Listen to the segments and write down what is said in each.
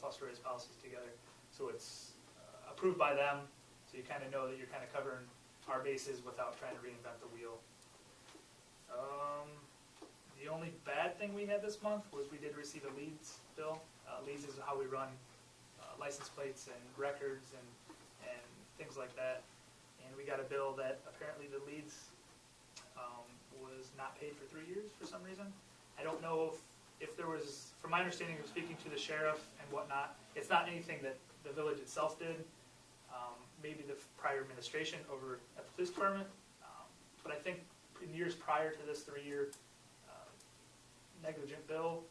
cost raise uh, policies together. So it's uh, approved by them, so you kind of know that you're kind of covering our bases without trying to reinvent the wheel. Um, the only bad thing we had this month was we did receive a leads bill. Uh, leads is how we run uh, license plates and records and, and things like that. And we got a bill that apparently the leads um, was not paid for three years for some reason. I don't know if, if there was, from my understanding of speaking to the sheriff and whatnot, it's not anything that the village itself did. Um, maybe the prior administration over at the police department. Um, but I think in years prior to this three-year uh, negligent bill,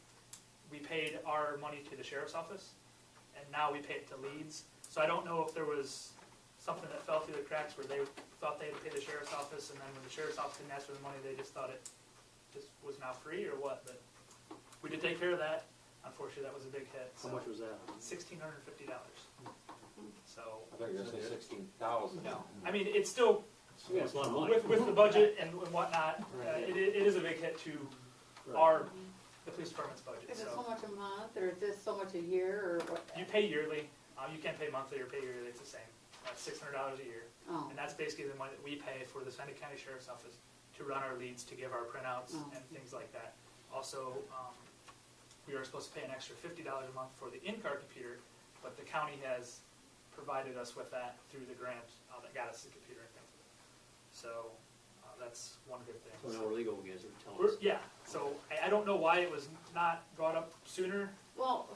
we paid our money to the sheriff's office, and now we pay it to Leeds. So I don't know if there was something that fell through the cracks where they thought they had paid the sheriff's office, and then when the sheriff's office didn't ask for the money, they just thought it just was now free or what, but we did take care of that. Unfortunately, that was a big hit, How so much Hmm. was that? sixteen hundred and fifty dollars. So, I thought you were gonna say sixteen thousand. no, I mean, it's still, Yeah, it's a lot of money. with, with the budget and whatnot, uh, Right. it, it is a big hit to Right. our, the police department's budget, Is so. it so much a month, or is this so much a year, or what? You pay yearly, uh, you can pay monthly or pay yearly, it's the same, that's six hundred dollars a year. Oh, And that's basically the money that we pay for the Sunday County Sheriff's Office to run our leads, to give our printouts Oh. and things like that. Also, um, we are supposed to pay an extra fifty dollars a month for the in-car computer, but the county has provided us with that through the grant, uh, that got us the computer and things. So, uh, that's one good thing. So now we're legal against it, tell We're- us. yeah, so I, I don't know why it was not brought up sooner, well,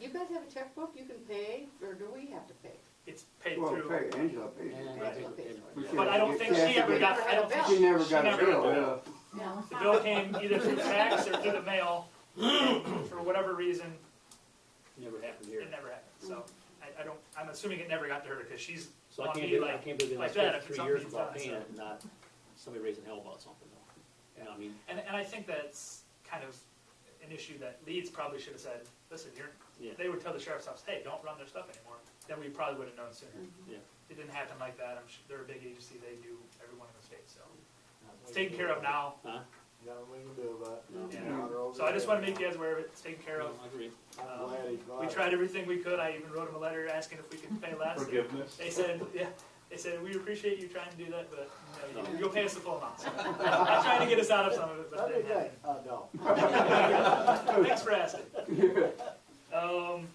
you guys have a checkbook you can pay, or do we have to pay? it's paid Well, through. pay Angela pays. And- it. Right. and- We and- should- But I don't think she ever got, I don't think She never got a never got bill, a yeah. No. The bill came either through fax or through the mail, and for whatever reason, Never happened here. it never happened, so I, I don't, I'm assuming it never got to her, because she's, So I on can't me be, I like- can't believe they like last that, if three something years is without done, paying so- it, and not somebody raising hell about something though. You know, I mean, and, and I think that's kind of an issue that Leeds probably should have said, listen, you're, Yeah. they would tell the sheriff's office, hey, don't run their stuff anymore, then we probably would have known sooner. Mm-hmm. yeah. It didn't happen like that, I'm sure, they're a big agency, they do everyone in the state, so it's taken care of now, Huh? Got nothing we can do about it. No. Yeah. so I just wanna make you guys aware of it, it's taken care of. Um, No, I agree. I'm glad he brought We it. tried everything we could, I even wrote him a letter asking if we could pay less. and- Forgiveness. They said, yeah, they said, we appreciate you trying to do that, but no, you- No. you'll pay us the full amount. So, I'm trying to get us out of some of it, but That'd it be didn't great. I know. happen. Thanks for asking. Um,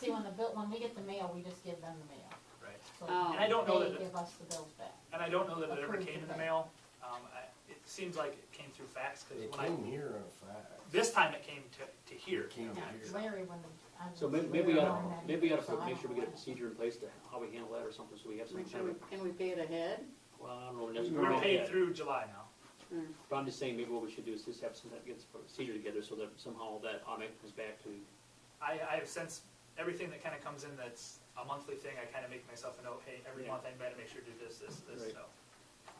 See, when the bill, when we get the mail, we just give them the mail. right, So Oh. And I don't know that it- They give us the bills back. and I don't know that it ever Approved came in the today. mail. Um, I, it seems like it came through fax, cause It when I, came here on a fax. this time it came to, to here. It came Yeah, here. Larry, when, I'm. So may- maybe we gotta, I'm not- maybe we gotta so put- I make don't sure we get a know. procedure in place to how we handle that or something, so we have some Make sure kind we- of, Can we pay it ahead? well, I don't know, next. We're We're paid through July now. Or- But I'm just saying, maybe what we should do is just have some, that gets procedure together, so that somehow that automatic comes back to, I, I have since, everything that kinda comes in that's a monthly thing, I kinda make myself a note, hey, every Yeah. month I better make sure to do this, this, this, Right. so.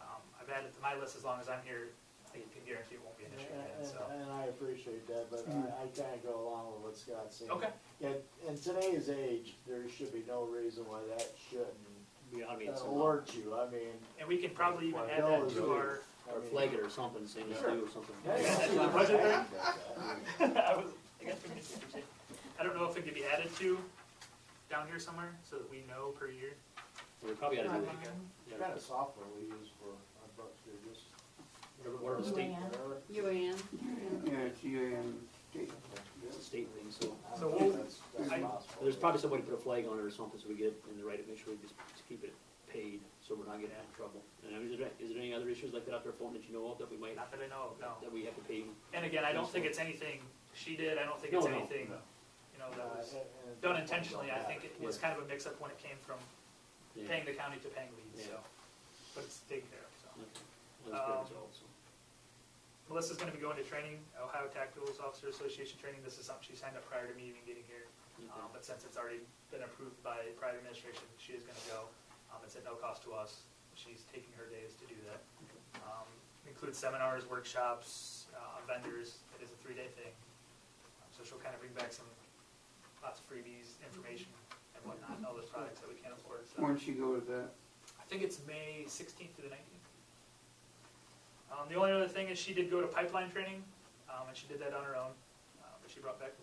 Um, I've added to my list as long as I'm here, I can guarantee it won't be an issue again, so. And- And I appreciate that, but I, I kinda go along with what Scott's saying. Okay, In, in today's age, there should be no reason why that shouldn't be automated uh, somehow. alert you, I mean. and we can probably even Well, add no, that it's to really- our, I Or mean- flag it or something, saying it's Sure. due or something. Yeah, yeah. That's the budget there? I mean, I was, I guess we can- I don't know if it could be added to down here somewhere, so that we know per year. We probably gotta do it, Online, What yeah, kind of software we use for our books, they're just. whatever, whatever state, Yeah. whatever. UAN? Yeah, it's um, UN state. state thing, so. I So don't we'll- think that's- that's I- possible. There's probably somebody put a flag on it or something, so we get it in the right, make sure we just keep it paid, so we're not getting in trouble. And I mean, is there, is there any other issues like that out there, phone that you know of, that we might, Not that I know of, no. that we have to pay? And again, I don't think it's anything she did, I don't think it's No, no, anything, no. you know, Uh, that was and- and- done intentionally, I think it was Yeah. kind of a mix-up when it came from Yeah. paying the county to paying leads, so, Yeah. but it's taken care of, so. Okay. Well, that's good Um, result, so. Melissa's gonna be going to training, Ohio Tactical Officer Association training, this is something she signed up prior to me even getting here. Um, Okay. but since it's already been approved by prior administration, she is gonna go. Um, it's at no cost to us. She's taking her days to do that. Um, includes seminars, workshops, uh, vendors. It is a three-day thing. Um, So she'll kind of bring back some, lots of freebies, information and whatnot, and all those products that we can't afford, so. When she goes that, I think it's May sixteenth to the nineteenth. Um, the only other thing is she did go to pipeline training, um, and she did that on her own, uh, but she brought back